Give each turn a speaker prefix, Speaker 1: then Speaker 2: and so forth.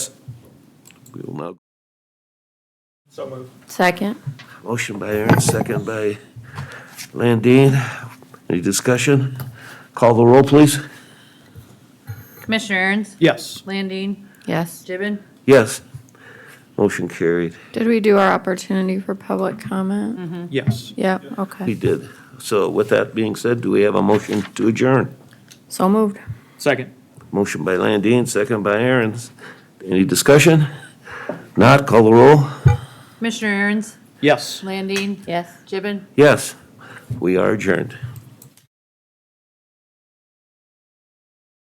Speaker 1: will now.
Speaker 2: So moved.
Speaker 3: Second.
Speaker 1: Motion by Aaron, second by Landine. Any discussion? Call the roll, please.
Speaker 4: Commissioner Aaron's,
Speaker 2: Yes.
Speaker 4: Landine,
Speaker 3: Yes.
Speaker 4: Gibbon,
Speaker 1: Yes. Motion carried.
Speaker 3: Did we do our opportunity for public
Speaker 4: Mm-hmm.
Speaker 3: comment?
Speaker 2: Yes.
Speaker 3: Yep,
Speaker 1: We
Speaker 3: okay.
Speaker 1: did. So with that being said, do we have a motion to adjourn?
Speaker 3: So moved.
Speaker 2: Second.
Speaker 1: Motion by Landine, second by Aaron's. Any discussion? Not, call the roll.
Speaker 4: Commissioner Aaron's,
Speaker 2: Yes.
Speaker 4: Landine,
Speaker 3: Yes.
Speaker 4: Gibbon,
Speaker 1: Yes, we are adjourned.